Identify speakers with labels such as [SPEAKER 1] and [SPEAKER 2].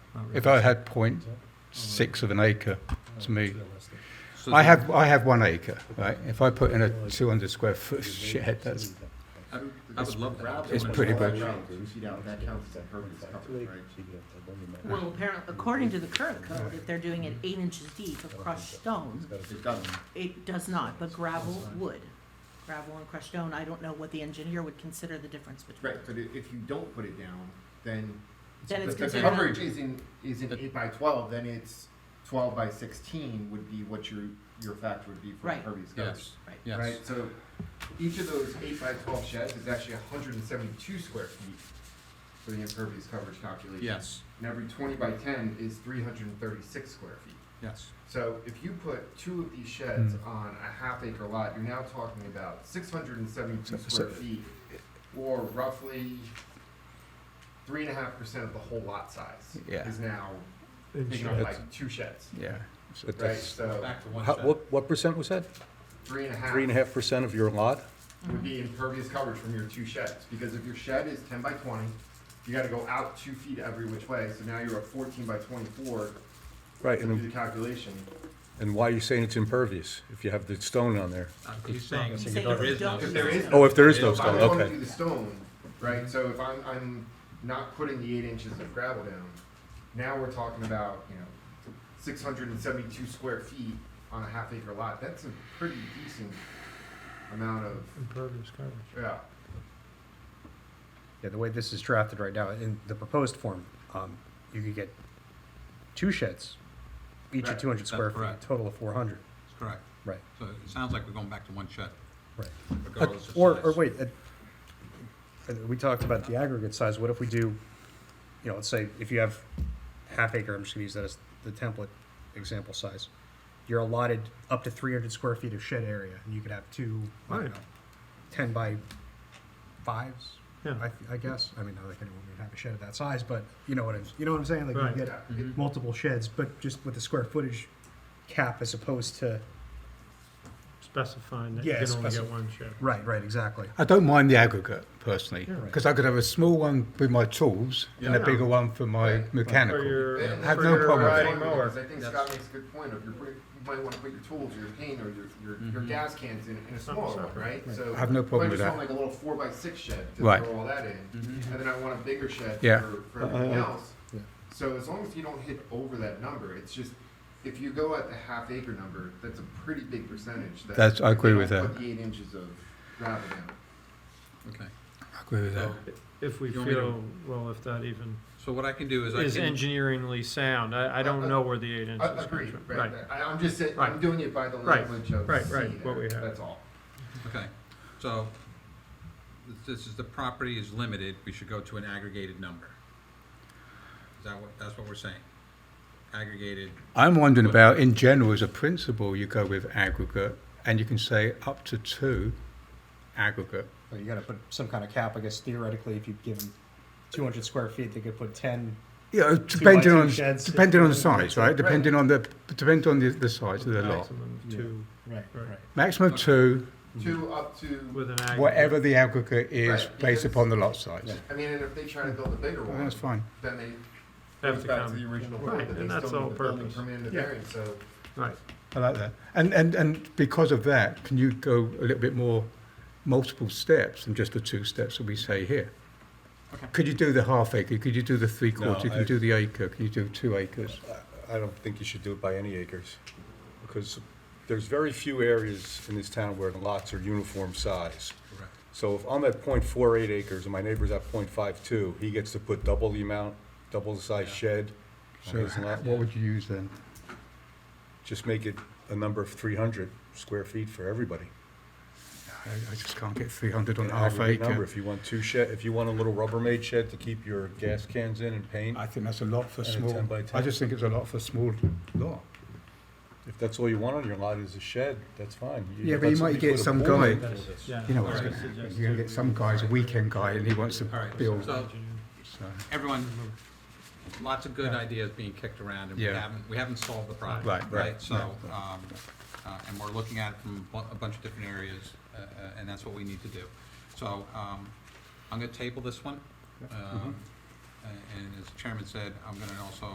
[SPEAKER 1] if I had point six of an acre to me, I have, I have one acre, right? If I put in a two hundred square foot shed, that's,
[SPEAKER 2] I I would love that.
[SPEAKER 1] It's pretty much-
[SPEAKER 3] Well, apparently, according to the current code, if they're doing it eight inches deep of crushed stone,
[SPEAKER 2] It doesn't.
[SPEAKER 3] it does not, but gravel would. Gravel and crushed stone, I don't know what the engineer would consider the difference between.
[SPEAKER 4] Right, but i- if you don't put it down, then.
[SPEAKER 3] Then it's
[SPEAKER 4] if the
[SPEAKER 3] considered.
[SPEAKER 4] Coverage isn't, isn't eight by twelve, then it's twelve by sixteen would be what your, your factor would be for
[SPEAKER 3] Right.
[SPEAKER 4] impervious coverage.
[SPEAKER 2] Yes,
[SPEAKER 3] Right.
[SPEAKER 2] yes.
[SPEAKER 4] Right, so each of those eight by twelve sheds is actually hundred and seventy-two square feet for the impervious coverage calculation.
[SPEAKER 2] Yes,
[SPEAKER 4] And every twenty by ten is three hundred and thirty-six square feet.
[SPEAKER 2] yes.
[SPEAKER 4] So if you put two of these sheds
[SPEAKER 1] Hmm.
[SPEAKER 4] on a half acre lot, you're now talking about six hundred and seventy-two
[SPEAKER 1] So-
[SPEAKER 4] square
[SPEAKER 1] so-
[SPEAKER 4] feet, or roughly three and a half percent of the whole lot size
[SPEAKER 1] Yeah.
[SPEAKER 4] is now taken up by two sheds,
[SPEAKER 1] yeah. So
[SPEAKER 4] right?
[SPEAKER 1] that's-
[SPEAKER 4] So
[SPEAKER 2] Back to one
[SPEAKER 5] How-
[SPEAKER 2] shot.
[SPEAKER 5] What, what percent was that?
[SPEAKER 4] three and a half
[SPEAKER 5] Three and a half percent of your lot?
[SPEAKER 4] would be impervious coverage from your two sheds, because if your shed is ten by twenty, you gotta go out two feet every which way, so now you're at fourteen by twenty-four,
[SPEAKER 5] Right,
[SPEAKER 4] to do
[SPEAKER 5] and,
[SPEAKER 4] the calculation.
[SPEAKER 5] and why are you saying it's impervious if you have the stone on there?
[SPEAKER 2] Uh, He's saying
[SPEAKER 3] He's saying
[SPEAKER 2] there
[SPEAKER 3] if
[SPEAKER 2] is
[SPEAKER 3] you
[SPEAKER 2] no.
[SPEAKER 3] don't
[SPEAKER 4] If there is
[SPEAKER 5] Oh, if there is no
[SPEAKER 2] If
[SPEAKER 4] If I
[SPEAKER 5] stone,
[SPEAKER 4] was gonna
[SPEAKER 5] okay.
[SPEAKER 4] do the stone, right, so if I'm, I'm not putting the eight inches of gravel down, now we're talking about, you know, six hundred and seventy-two square feet on a half acre lot, that's a pretty decent amount of,
[SPEAKER 6] Impervious coverage.
[SPEAKER 4] yeah.
[SPEAKER 6] Yeah, the way this is drafted right now, in the proposed form, um, you could get two sheds, each
[SPEAKER 4] Right,
[SPEAKER 6] of two hundred
[SPEAKER 2] that's
[SPEAKER 6] square feet,
[SPEAKER 2] correct.
[SPEAKER 6] total of four hundred.
[SPEAKER 2] That's Correct.
[SPEAKER 6] Right,
[SPEAKER 2] So it sounds like we're going back to one shot.
[SPEAKER 6] right. Uh,
[SPEAKER 2] regardless of
[SPEAKER 6] Or, or
[SPEAKER 2] size.
[SPEAKER 6] wait, uh, uh, we talked about the aggregate size, what if we do, you know, let's say if you have half acre, I'm just gonna use that as the template example size. You're allotted up to three hundred square feet of shed area, and you could have two, I don't know, ten by fives, I, I guess, I mean, not like anyone would have a shed of that size, but you know what I'm, you know what I'm saying? Like
[SPEAKER 7] Right.
[SPEAKER 6] you
[SPEAKER 4] Yeah.
[SPEAKER 6] get multiple sheds, but just with the square footage cap as opposed to,
[SPEAKER 7] specifying that
[SPEAKER 6] Yeah,
[SPEAKER 7] you can only
[SPEAKER 6] specif-
[SPEAKER 7] get one shed.
[SPEAKER 6] right, right, exactly.
[SPEAKER 1] I don't mind the aggregate personally,
[SPEAKER 7] Yeah, right.
[SPEAKER 1] because I could have a small one with my tools and a
[SPEAKER 7] Yeah.
[SPEAKER 1] bigger one for my
[SPEAKER 4] Right.
[SPEAKER 7] For
[SPEAKER 1] mechanical.
[SPEAKER 7] your,
[SPEAKER 4] And
[SPEAKER 1] Have
[SPEAKER 7] for
[SPEAKER 1] no
[SPEAKER 7] your
[SPEAKER 1] problem.
[SPEAKER 7] riding
[SPEAKER 4] Because
[SPEAKER 7] mower.
[SPEAKER 4] I think Scott makes a good point of you're putting, you might wanna put your tools, your paint, or your, your, your
[SPEAKER 2] Mhm.
[SPEAKER 4] gas cans in, in a smaller one,
[SPEAKER 7] separate.
[SPEAKER 4] right? So
[SPEAKER 1] I have no problem
[SPEAKER 4] I
[SPEAKER 1] with
[SPEAKER 4] just
[SPEAKER 1] that.
[SPEAKER 4] want like a little four by six shed to
[SPEAKER 1] Right.
[SPEAKER 4] throw all that in,
[SPEAKER 2] Mhm.
[SPEAKER 4] and then I want a bigger shed
[SPEAKER 1] Yeah.
[SPEAKER 4] for, for everything
[SPEAKER 1] uh,
[SPEAKER 4] else.
[SPEAKER 6] yeah.
[SPEAKER 4] So as long as you don't hit over that number, it's just, if you go at the half acre number, that's a pretty big percentage that.
[SPEAKER 1] That's- I
[SPEAKER 4] they
[SPEAKER 1] agree
[SPEAKER 4] don't
[SPEAKER 1] with that.
[SPEAKER 4] Put the eight inches of gravel down.
[SPEAKER 2] Okay.
[SPEAKER 1] I agree with that.
[SPEAKER 2] So-
[SPEAKER 7] If we
[SPEAKER 2] You want me to-
[SPEAKER 7] feel, well, if that even
[SPEAKER 2] So what I can do is I
[SPEAKER 7] is
[SPEAKER 2] can,
[SPEAKER 7] engineeringly sound, I, I
[SPEAKER 4] Uh, uh,
[SPEAKER 7] don't know where the eight inches
[SPEAKER 4] I
[SPEAKER 7] comes
[SPEAKER 4] agree,
[SPEAKER 7] from.
[SPEAKER 4] right, I, I'm just saying, I'm
[SPEAKER 7] Right.
[SPEAKER 4] doing it by the
[SPEAKER 7] Right.
[SPEAKER 4] language of
[SPEAKER 7] Right,
[SPEAKER 4] C
[SPEAKER 7] right, what
[SPEAKER 4] there.
[SPEAKER 7] we have.
[SPEAKER 4] that's all.
[SPEAKER 2] okay, so this- this is, the property is limited, we should go to an aggregated number. Is that what, that's what we're saying? Aggregated,
[SPEAKER 1] I'm wondering about, in general, as a principle, you go with aggregate and you can say up to two aggregate.
[SPEAKER 6] But you gotta put some kind of cap, I guess theoretically, if you give them two hundred square feet, they could put ten.
[SPEAKER 1] Yeah, depending
[SPEAKER 6] two
[SPEAKER 1] on,
[SPEAKER 6] sheds.
[SPEAKER 1] depending on the size, right? Depending on the, depending on the, the size of the lot.
[SPEAKER 7] Maximum of two
[SPEAKER 6] Right,
[SPEAKER 7] right.
[SPEAKER 1] Maximum two,
[SPEAKER 4] Two up to,
[SPEAKER 7] with an aggregate.
[SPEAKER 1] whatever the aggregate is
[SPEAKER 4] Right,
[SPEAKER 1] based
[SPEAKER 4] because-
[SPEAKER 1] upon the lot size.
[SPEAKER 6] Yeah.
[SPEAKER 4] I mean, and if they try to build a bigger
[SPEAKER 1] Well,
[SPEAKER 4] one,
[SPEAKER 1] Oh, That's fine.
[SPEAKER 4] then they
[SPEAKER 7] Have
[SPEAKER 4] goes
[SPEAKER 7] to
[SPEAKER 4] back to
[SPEAKER 7] come.
[SPEAKER 4] the original
[SPEAKER 7] Right,
[SPEAKER 4] code, that
[SPEAKER 7] and
[SPEAKER 4] they
[SPEAKER 7] that's
[SPEAKER 4] still
[SPEAKER 7] all
[SPEAKER 4] need the building
[SPEAKER 7] purpose.
[SPEAKER 4] permit and the
[SPEAKER 6] Yeah.
[SPEAKER 4] variance, so.
[SPEAKER 7] Right,
[SPEAKER 1] I like that. And, and, and because of that, can you go a little bit more multiple steps than just the two steps that we say here?
[SPEAKER 2] Okay.
[SPEAKER 1] Could you do the half acre? Could you do the three
[SPEAKER 5] No,
[SPEAKER 1] quarter? Could
[SPEAKER 5] I-
[SPEAKER 1] you do the acre? Can you do two acres?
[SPEAKER 5] I don't think you should do it by any acres, because there's very few areas in this town where the lots are uniform size.
[SPEAKER 2] correct,
[SPEAKER 5] So if I'm at .48 acres and my neighbor's at .52, he gets to put double the amount, double the size
[SPEAKER 2] Yeah.
[SPEAKER 5] shed on
[SPEAKER 1] So
[SPEAKER 5] his
[SPEAKER 1] ha-
[SPEAKER 5] lot.
[SPEAKER 1] what would you use then?
[SPEAKER 5] Just make it a number of three hundred square feet for everybody.
[SPEAKER 1] I, I just can't get three hundred on a
[SPEAKER 5] An
[SPEAKER 1] half
[SPEAKER 5] aggregate number.
[SPEAKER 1] acre.
[SPEAKER 5] If you want two shed, if you want a little Rubbermaid shed to keep your gas cans in and paint,
[SPEAKER 1] I think that's a lot for
[SPEAKER 5] And a
[SPEAKER 1] small,
[SPEAKER 5] 10 by
[SPEAKER 1] I
[SPEAKER 5] 10.
[SPEAKER 1] just think it's a lot for small lot.
[SPEAKER 5] if that's all you want on your lot is a shed, that's fine.
[SPEAKER 1] Yeah, but you might
[SPEAKER 5] let somebody
[SPEAKER 1] get
[SPEAKER 5] put a
[SPEAKER 1] some
[SPEAKER 5] pool
[SPEAKER 1] guy-
[SPEAKER 5] in.
[SPEAKER 7] yeah.
[SPEAKER 1] You know what's
[SPEAKER 2] Alright.
[SPEAKER 1] gonna happen. You're gonna get some guy's a weekend guy and he wants to
[SPEAKER 2] Alright,
[SPEAKER 1] build.
[SPEAKER 2] so-
[SPEAKER 1] so-
[SPEAKER 2] everyone, lots of good ideas being kicked around, and we
[SPEAKER 1] Yeah.
[SPEAKER 2] haven't, we haven't solved the problem.
[SPEAKER 1] Right, right,
[SPEAKER 2] So,
[SPEAKER 1] right.
[SPEAKER 2] um, uh, and we're looking at it from bu- a bunch of different areas, uh, uh, and that's what we need to do. So,
[SPEAKER 1] Mm-hmm.
[SPEAKER 2] um, I'm gonna table this one, um, a- and as the Chairman said, I'm gonna also